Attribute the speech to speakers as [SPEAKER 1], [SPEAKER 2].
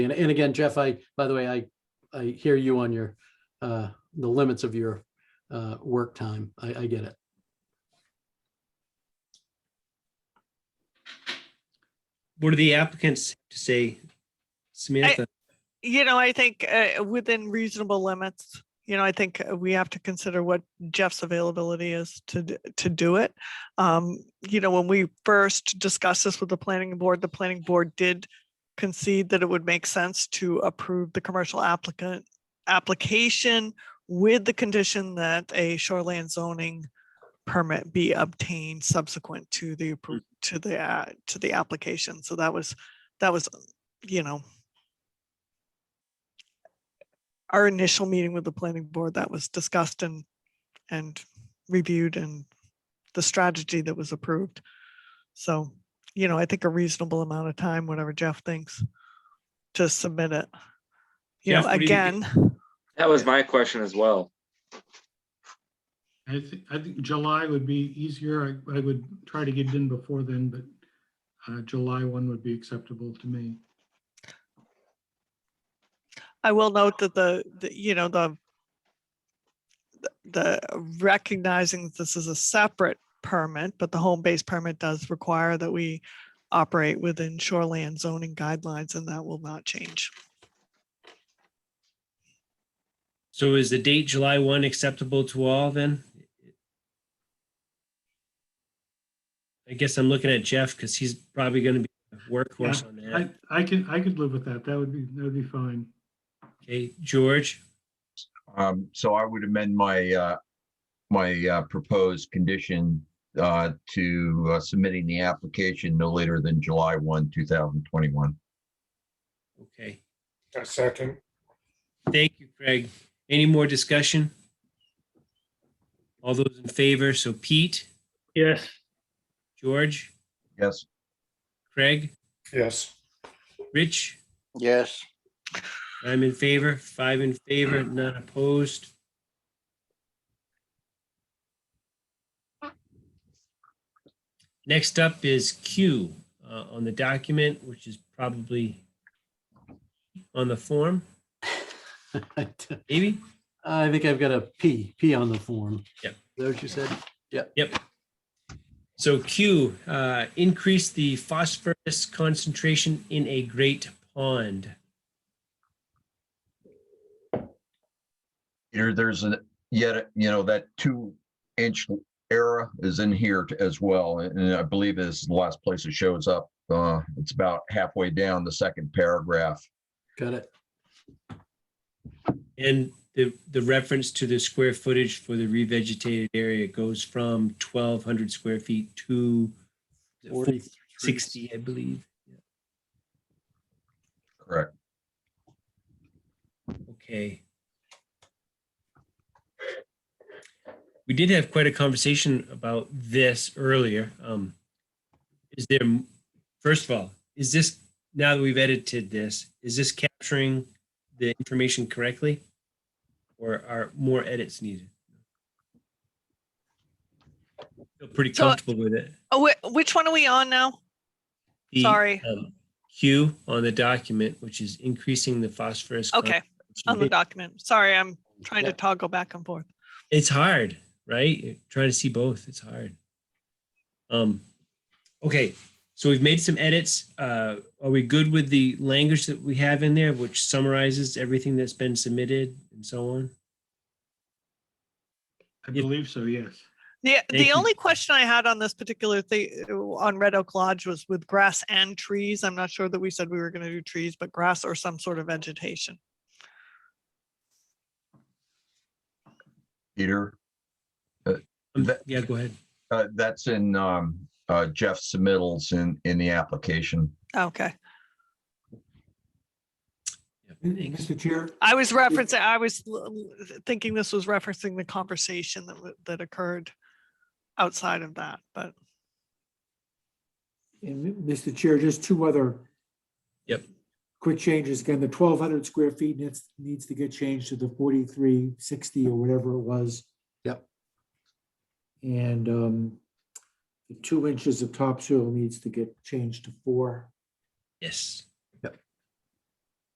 [SPEAKER 1] And, and again, Jeff, I, by the way, I, I hear you on your, uh, the limits of your, uh, work time. I, I get it.
[SPEAKER 2] What do the applicants have to say? Samantha,
[SPEAKER 3] You know, I think uh, within reasonable limits, you know, I think uh, we have to consider what Jeff's availability is to, d- to do it. Um, You know, when we first discussed this with the planning board, the planning board did concede that it would make sense to approve the commercial applicant, application with the condition that a shoreland zoning permit be obtained subsequent to the,
[SPEAKER 2] Mm.
[SPEAKER 3] appro- to the, uh, to the application. So that was, that was, you know, our initial meeting with the planning board that was discussed and, and reviewed and the strategy that was approved. So, you know, I think a reasonable amount of time, whatever Jeff thinks, to submit it. You
[SPEAKER 2] Jeff,
[SPEAKER 3] know,
[SPEAKER 2] what do you think?
[SPEAKER 3] again,
[SPEAKER 4] That was my question as well.
[SPEAKER 5] I think, I think July would be easier. I, I would try to get it in before then, but uh, July one would be acceptable to me.
[SPEAKER 3] I will note that the, the, you know, the the recognizing that this is a separate permit, but the home-based permit does require that we operate within shoreland zoning guidelines and that will not change.
[SPEAKER 2] so is the date July 1 acceptable to all then? I guess I'm looking at Jeff because he's probably going to be a workhorse on
[SPEAKER 5] I,
[SPEAKER 2] that.
[SPEAKER 5] I can, I could live with that. That would be, that would be fine.
[SPEAKER 2] Okay, George,
[SPEAKER 6] Um, so I would amend my, uh, my, uh, proposed condition, uh, to uh, submitting the application no later than July one, two thousand twenty-one.
[SPEAKER 2] okay.
[SPEAKER 7] A second.
[SPEAKER 2] Thank you, Craig. Any more discussion? All those in favor, so Pete,
[SPEAKER 5] Yes.
[SPEAKER 2] George,
[SPEAKER 6] Yes,
[SPEAKER 2] Craig,
[SPEAKER 7] Yes.
[SPEAKER 2] Rich,
[SPEAKER 8] Yes,
[SPEAKER 2] I'm in favor, five in favor, none opposed. Next up is Q uh, on the document, which is probably on the form, maybe?
[SPEAKER 1] I think I've got a P, P on the form.
[SPEAKER 2] Yep.
[SPEAKER 1] Is that what you said?
[SPEAKER 2] So Q, uh, increase the phosphorus concentration in a great pond.
[SPEAKER 6] here, there's a, yet, you know, that two inch error is in here t- as well. And I believe is the last place it shows up. Uh, it's about halfway down the second paragraph.
[SPEAKER 1] Got it.
[SPEAKER 2] And the, the reference to the square footage for the revegetated area goes from twelve hundred square feet to
[SPEAKER 1] Forty-
[SPEAKER 2] sixty, I believe.
[SPEAKER 6] Correct.
[SPEAKER 2] Okay. We did have quite a conversation about this earlier. Um, is there, first of all, is this, now that we've edited this, is this capturing the information correctly? Or are more edits needed? Feel pretty
[SPEAKER 3] So-
[SPEAKER 2] comfortable with it.
[SPEAKER 3] Oh, whi- which one are we on
[SPEAKER 2] Uh,
[SPEAKER 3] now?
[SPEAKER 2] The,
[SPEAKER 3] Sorry.
[SPEAKER 2] um, Q on the document, which is increasing the phosphorus.
[SPEAKER 3] Okay, on the
[SPEAKER 2] concentration.
[SPEAKER 3] document. Sorry, I'm trying to
[SPEAKER 1] Yeah.
[SPEAKER 3] toggle back and forth.
[SPEAKER 2] It's hard, right? You're Trying to see both, it's hard. Um, okay, so we've made some edits. Uh, are we good with the language that we have in there, which summarizes everything that's been submitted and so on?
[SPEAKER 5] I
[SPEAKER 2] If-
[SPEAKER 5] believe so, yes.
[SPEAKER 3] Yeah,
[SPEAKER 2] Thank
[SPEAKER 3] the
[SPEAKER 2] you.
[SPEAKER 3] only question I had on this particular thing on Red Oak Lodge was with grass and trees. I'm not sure that we said we were going to do trees, but grass or some sort of vegetation.
[SPEAKER 6] Peter,
[SPEAKER 2] Um,
[SPEAKER 6] That-
[SPEAKER 2] Yeah, go ahead.
[SPEAKER 6] uh, that's in, um, uh, Jeff's submittals in, in the application.
[SPEAKER 3] Okay,
[SPEAKER 2] Yeah, thanks.
[SPEAKER 7] Mr. Chair,
[SPEAKER 3] I was referencing, I was l- l- thinking this was referencing the conversation that, w- that occurred outside of that, but
[SPEAKER 7] and m- Mr. Chair, just two other.
[SPEAKER 2] Yep.
[SPEAKER 7] Quick changes. Again, the twelve hundred square feet needs, needs to get changed to the forty-three sixty or whatever it was.
[SPEAKER 1] Yep.
[SPEAKER 7] And um, the two inches of topsoil needs to get changed to four.
[SPEAKER 2] Yes,